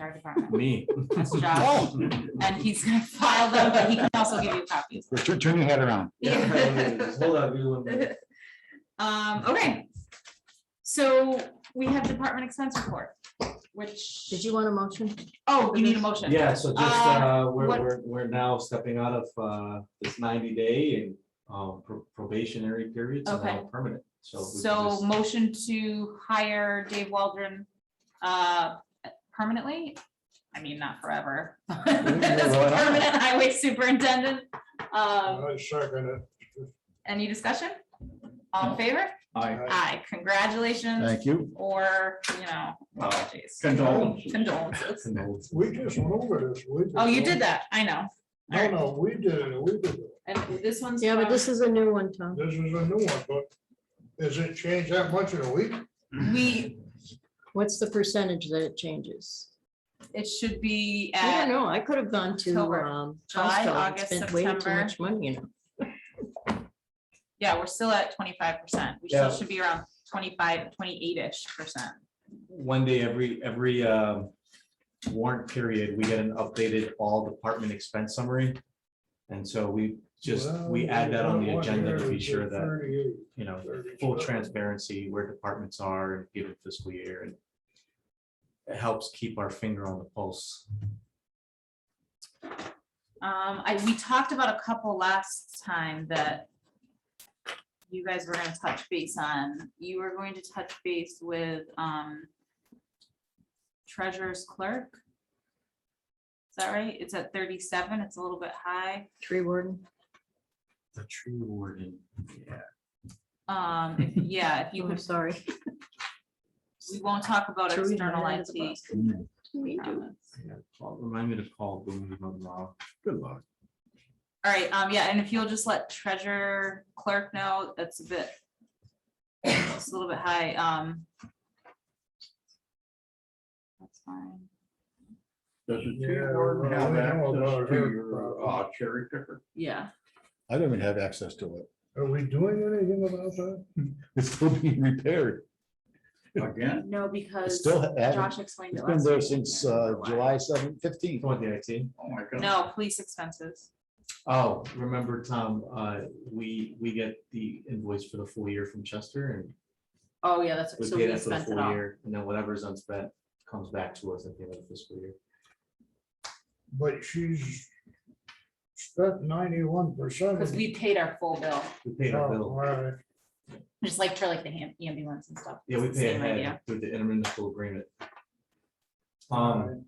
fire department. Me. Oh. That's Josh. And he's gonna file them, but he can also give you copies. Turn, turn your head around. Yeah. Hold on, give me one minute. Um, okay. So we have department expense report, which. Did you want a motion? Oh, we need a motion. Yeah, so just, Uh, uh, we're, what- we're, we're now stepping out of, uh, this ninety day and, um, pro- probationary periods and now Okay. permanent, so. we can So just- motion to hire Dave Waldron, uh, permanently? I mean, not forever. As a Permanent highway superintendent. Um, any discussion? All in favor? Aye, congratulations Thank you. or, you know, apologies, Condolences. condolences. Condolences. We just went over this. we just Oh, you went- did that, I know. No, no, we did it, we did it. And this one's. Yeah, but from- this is a new one, Tom. This is a new one, but does it change that much in a week? We, What's the percentage that it changes? it should be I don't at, know. I could have gone to, October, um, July, Costco and August, spent way too September. much money, you know. yeah, we're still at twenty-five percent. We Yeah. still should be around 25, 28 ish percent. One day every, every, um, warrant period, we get an updated all department expense summary. And so we just, we Well, add that on the one agenda to here be is sure that, 38, you know, 37. full transparency where departments are and given fiscal year and it helps keep our finger on the pulse. Um, I, we talked about a couple last time that you guys were gonna touch base on. You were going to touch base with, um, treasurer's clerk. Is that right? It's at thirty-seven. It's a little bit high. Tree warden. The tree warden. Yeah. Um, if- yeah, if you Oh, I'm could, sorry. we won't talk about Tree warden external out of the IT. box. We do. yeah. Well, Remind me to call Boone Monroe. Good luck. All right, um, yeah, and if you'll just let treasurer clerk know, that's a bit. It's a little bit high, um. That's fine. Does the tree Yeah, warden well, have we know access about to her your problem. uh, cherry picker? Yeah. I don't even have access to it. Are we doing anything about that? It's still being repaired. Again, No, It's because still, ha- Josh explained it's it been last. there week. since Yeah, uh, why. July seventh, You fifteenth. want the IT? oh my God. No, police expenses. Oh, remember, Tom, uh, we, we get the invoice for the full year from Chester and Oh, yeah, that's, we so pay we that for the spent it full all. year. And then whatever's unspent comes back to us at the end of the fiscal year. But she's spent ninety-one percent. Because we paid our full bill, We paid our bill. just like for like the ham- ambulance and stuff. Yeah, we It's the pay same idea. ahead through the intermunicipal agreement. Um,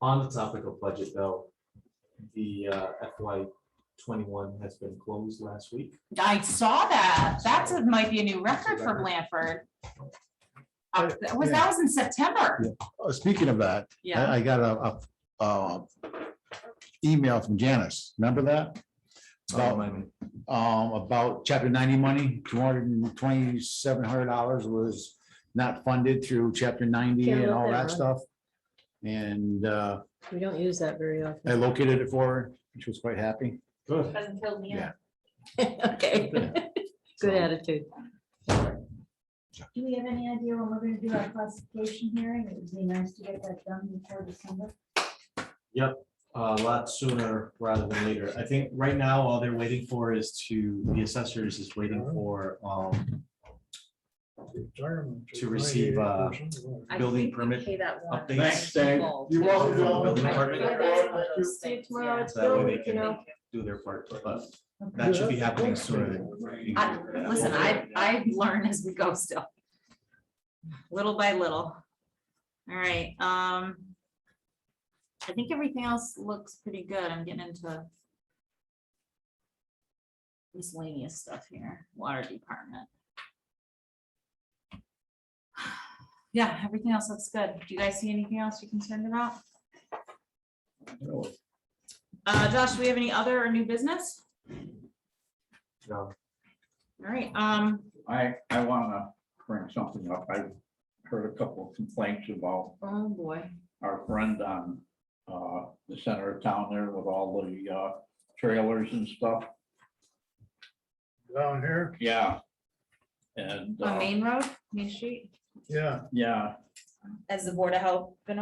on the topic of budget though, the uh, FY twenty-one has been closed last week. I saw that. That's, a- might be a new record for Blanford. Uh, That was, that was in September. Uh, Speaking of that, Yeah, Uh, I, I got a, a, uh, email from Janice. Remember that? About Um, um, about chapter ninety money, two hundred and twenty-seven hundred dollars was not funded through chapter ninety Yeah, I and wrote all that that one. stuff. And, uh, We don't use that very I often. located it for her. She was quite happy. Good. Okay, good attitude. Do we have any idea when we're gonna do our classification hearing? It would be nice to get that done before December. uh, A lot sooner rather than later. I think right now, all they're waiting for is to, the assessors is waiting for, um, To receive, uh, I building think we permit pay that one. updates. Thanks, Dave. Full. You're welcome, Bill. Building I permit. feel that's one of those See you things, tomorrow. yeah. It's so that way building, they you can know. do their part, but that should be happening sooner. than- I- Listen, I, I learn as we go still. Little by little. All right, um. I think everything else looks pretty good. I'm getting into. Miscellaneous stuff here, water department. Yeah, everything else looks good. Do you guys see anything else you're concerned about? Uh, Josh, do we have any other or new business? No. All right, um, I, I wanna bring something up. I heard a couple of complaints about oh boy. our friend on, uh, the center of town there with all the, uh, trailers and stuff. Down here, Yeah. And, On uh, Main Road, Main Street, yeah. yeah, as the Board of Health been